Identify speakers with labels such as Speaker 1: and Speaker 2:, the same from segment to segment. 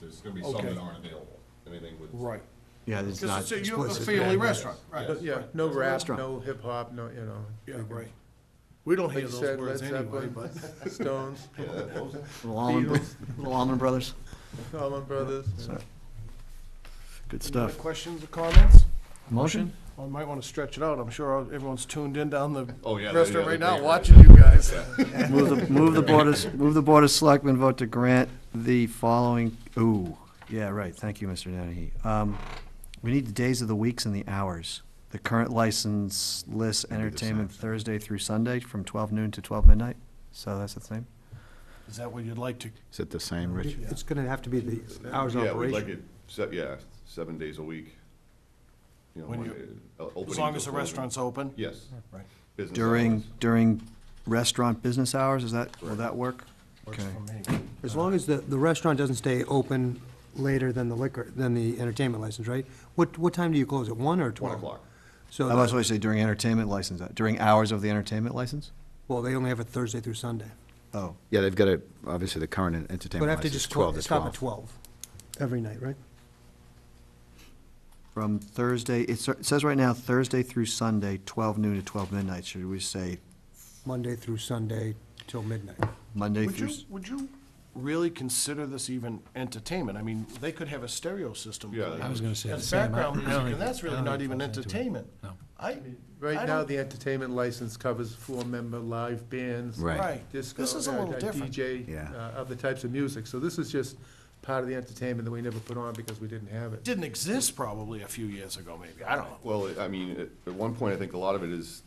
Speaker 1: there's gonna be some that
Speaker 2: Okay.
Speaker 1: aren't available, anything with.
Speaker 2: Right.
Speaker 3: Yeah, there's not
Speaker 2: Because it's a- you're a
Speaker 3: explicit.
Speaker 2: family
Speaker 3: yeah.
Speaker 2: restaurant, right.
Speaker 1: Yes.
Speaker 4: Yeah, no rap,
Speaker 3: Restaurant.
Speaker 4: no hip-hop, no, you know.
Speaker 2: Yeah, right. We don't
Speaker 4: Like
Speaker 2: hear
Speaker 4: you
Speaker 2: those
Speaker 4: said, Led
Speaker 2: words anyway,
Speaker 4: Zeppelin,
Speaker 2: but.
Speaker 4: Stones,
Speaker 3: Little Allman, Little Allman Brothers,
Speaker 4: Allman Brothers.
Speaker 3: good
Speaker 2: Any
Speaker 3: stuff.
Speaker 2: Questions or comments?
Speaker 3: Motion?
Speaker 2: I might want to stretch it out. I'm sure everyone's tuned in down the
Speaker 1: Oh, yeah, they-
Speaker 2: restaurant
Speaker 1: yeah,
Speaker 2: right
Speaker 1: they-
Speaker 2: now, watching you guys.
Speaker 3: Move the, move the Board of, move the Board of Selectmen vote to grant the following, ooh, yeah, right, thank you, Mr. Dennehy. Um, we need the days of the weeks and the hours. The current license lists entertainment Thursday through Sunday from twelve noon to twelve midnight, so that's the same.
Speaker 2: Is that what you'd like to?
Speaker 5: Is it the same, Rich?
Speaker 6: It's gonna have to be the hours of
Speaker 1: Yeah, we'd like
Speaker 6: operation.
Speaker 1: it, se- yeah, seven days a week. You know,
Speaker 2: When you-
Speaker 1: uh, opening
Speaker 2: As long
Speaker 1: to
Speaker 2: as the
Speaker 1: closing.
Speaker 2: restaurant's open?
Speaker 1: Yes.
Speaker 2: Right.
Speaker 1: Business
Speaker 3: During,
Speaker 1: hours.
Speaker 3: during restaurant business hours, is that, will that work?
Speaker 2: Works
Speaker 3: Okay.
Speaker 2: for me.
Speaker 6: As long as the, the restaurant doesn't stay open later than the liquor, than the entertainment license, right? What, what time do you close? At one or
Speaker 1: One
Speaker 6: twelve?
Speaker 1: o'clock.
Speaker 3: I was
Speaker 6: So,
Speaker 3: always say during entertainment license, uh, during hours of the entertainment license?
Speaker 6: well, they only have it Thursday through Sunday.
Speaker 3: Oh,
Speaker 5: Yeah, they've got to, obviously, the current
Speaker 6: But
Speaker 5: entertainment
Speaker 6: have to
Speaker 5: license is
Speaker 6: just
Speaker 5: 12
Speaker 6: clo-
Speaker 5: to
Speaker 6: stop at
Speaker 5: 12.
Speaker 6: twelve every night, right?
Speaker 3: from Thursday, it sa- it says right now Thursday through Sunday, twelve noon to twelve midnight. Should we say
Speaker 6: Monday through Sunday till midnight.
Speaker 3: Monday
Speaker 2: Would
Speaker 3: through?
Speaker 2: you, would you really consider this even entertainment? I mean, they could have a stereo system.
Speaker 1: Yeah,
Speaker 2: playing.
Speaker 1: I was
Speaker 7: gonna say the
Speaker 2: That's
Speaker 7: same. I-
Speaker 2: background
Speaker 7: I don't
Speaker 2: music, and
Speaker 7: even-
Speaker 2: that's
Speaker 7: I
Speaker 2: really
Speaker 7: don't
Speaker 2: not
Speaker 7: even
Speaker 2: even
Speaker 7: falls into it.
Speaker 2: entertainment.
Speaker 7: No.
Speaker 2: I, I
Speaker 4: Right now,
Speaker 2: don't-
Speaker 4: the entertainment license covers four-member live bands.
Speaker 5: Right.
Speaker 2: Right.
Speaker 4: Disco.
Speaker 2: This is a
Speaker 4: uh,
Speaker 2: little
Speaker 4: uh,
Speaker 2: different.
Speaker 4: DJ,
Speaker 5: Yeah.
Speaker 4: uh, other types of music. So this is just part of the entertainment that we never put on because we didn't have it.
Speaker 2: Didn't exist probably a few years ago, maybe. I don't know.
Speaker 1: Well, I mean, at- at one point, I think a lot of it is,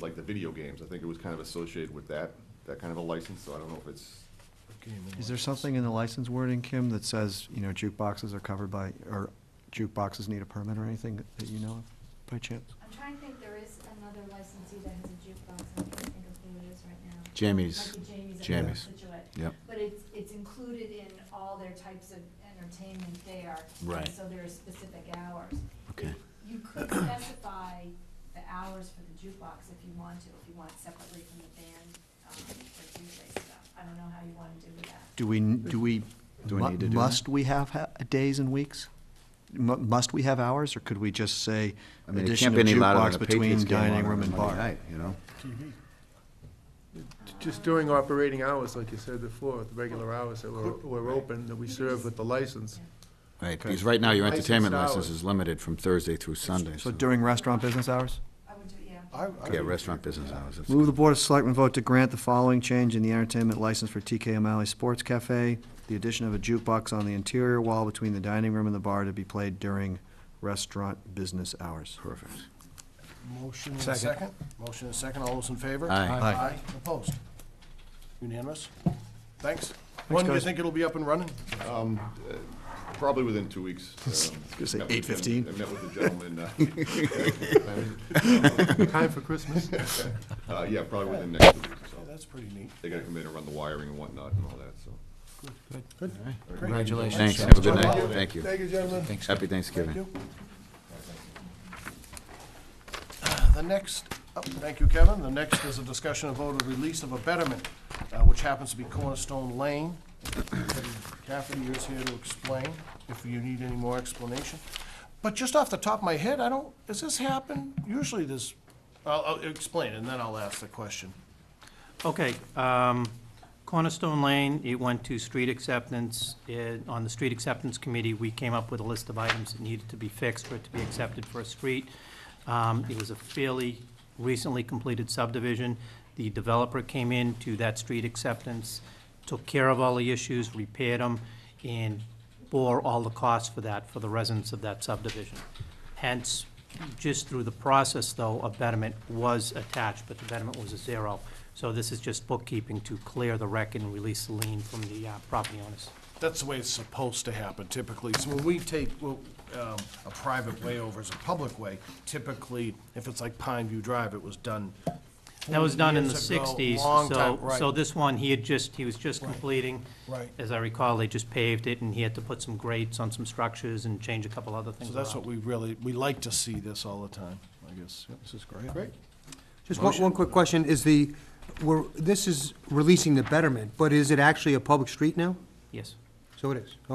Speaker 1: like the video games, I think it was kind of associated with that, that kind of a license, so I don't know if it's,
Speaker 3: Is there something in the license wording, Kim, that says, you know, jukeboxes are covered by, or jukeboxes need a permit or anything that- that you know of by chance?
Speaker 8: I'm trying to think, there is another licensee that has a jukebox, I can't think of who it is right now.
Speaker 5: Jamie's.
Speaker 8: Might be Jamie's. up in
Speaker 5: Jamie's.
Speaker 8: Situate.
Speaker 5: Yep.
Speaker 8: But it's, it's included in all their types of entertainment there. and
Speaker 5: Right.
Speaker 8: So there are specific hours.
Speaker 5: Okay.
Speaker 8: You could specify the hours for the jukebox if you want to, if you want separately from the band, um, for Tuesday stuff. I don't know how you wanna do that.
Speaker 3: Do we, do we,
Speaker 5: Do we
Speaker 3: mu-
Speaker 5: need to do that?
Speaker 3: must we have ha- days and weeks? Mu- Must we have hours, or could we just say
Speaker 5: I mean, it
Speaker 3: addition
Speaker 5: can't
Speaker 3: of
Speaker 5: be any louder
Speaker 3: jukebox
Speaker 5: than a Patriots
Speaker 3: between
Speaker 5: game
Speaker 3: dining room
Speaker 5: on a
Speaker 3: and
Speaker 5: Monday
Speaker 3: bar?
Speaker 5: night, you know?
Speaker 4: Just during operating hours, like you said before, the regular hours that we're, we're open, that we
Speaker 8: You can
Speaker 4: serve
Speaker 8: just-
Speaker 4: with the license.
Speaker 5: Right, because right now, your
Speaker 4: Licensed
Speaker 5: entertainment license
Speaker 4: hours.
Speaker 5: is limited from Thursday through Sunday,
Speaker 3: So
Speaker 5: so,
Speaker 3: during restaurant business hours?
Speaker 8: I would do, yeah.
Speaker 2: I- I
Speaker 5: yeah,
Speaker 2: would-
Speaker 5: restaurant business hours. that's
Speaker 3: Move the
Speaker 5: good.
Speaker 3: Board of Selectmen vote to grant the following change in the entertainment license for TK O'Malley Sports Cafe. The addition of a jukebox on the interior wall between the dining room and the bar to be played during restaurant business hours.
Speaker 5: Perfect.
Speaker 2: Motion and a second. Motion and a second. All those in favor?
Speaker 5: Aye. Aye.
Speaker 2: Aye. Opposed? Unanimous? Thanks. When do you
Speaker 3: guys.
Speaker 2: think it'll be up and running?
Speaker 1: probably within two weeks. um, I was
Speaker 3: gonna say 8:15.
Speaker 1: I met with the gentleman, uh,
Speaker 4: Time for Christmas.
Speaker 1: uh, yeah, probably within next week,
Speaker 2: Yeah,
Speaker 1: so.
Speaker 2: That's pretty neat.
Speaker 1: They gotta come in and run the wiring and whatnot and all that, so.
Speaker 7: Congratulations.
Speaker 5: Thanks, have a good night, thank you.
Speaker 2: Thank you, gentlemen.
Speaker 5: Thanks. Happy Thanksgiving.
Speaker 2: Thank you. The next, up thank you, Kevin. The next is a discussion of vote of release of a betterment, uh, which happens to be Cornerstone Lane. Kathy is here to explain, if you need any more explanation. But just off the top of my head, I don't, does this happen? Usually this, I'll, I'll explain, and then I'll ask the question.
Speaker 9: Okay, um, Cornerstone Lane, it went to street acceptance. It- On the street acceptance committee, we came up with a list of items that needed to be fixed for it to be accepted for a street. Um, It was a fairly recently completed subdivision. The developer came in to that street acceptance, took care of all the issues, repaired them, and bore all the costs for that, for the residents of that subdivision. Hence, just through the process, though, a betterment was attached, but the betterment was a zero. So this is just bookkeeping to clear the wreck and release the lien from the uh, property owners.
Speaker 2: That's the way it's supposed to happen typically. So when we take, well, um, a private way over as a public way, typically, if it's like Pine View Drive, it was done
Speaker 9: That was done in the
Speaker 2: 40 years ago,
Speaker 9: sixties,
Speaker 2: long
Speaker 9: so,
Speaker 2: time, right.
Speaker 9: so this one, he had just, he was just completing.
Speaker 2: Right.
Speaker 9: As I recall, they just paved it, and he had to put some grates on some structures and change a couple other things
Speaker 2: So
Speaker 9: around.
Speaker 2: that's what we really, we like to see this all the time, I guess. Yep, This is great. Great.
Speaker 6: Just one, one quick question, is the, we're, this is releasing the betterment, but is it actually a public street now?
Speaker 9: Yes.
Speaker 6: So it is,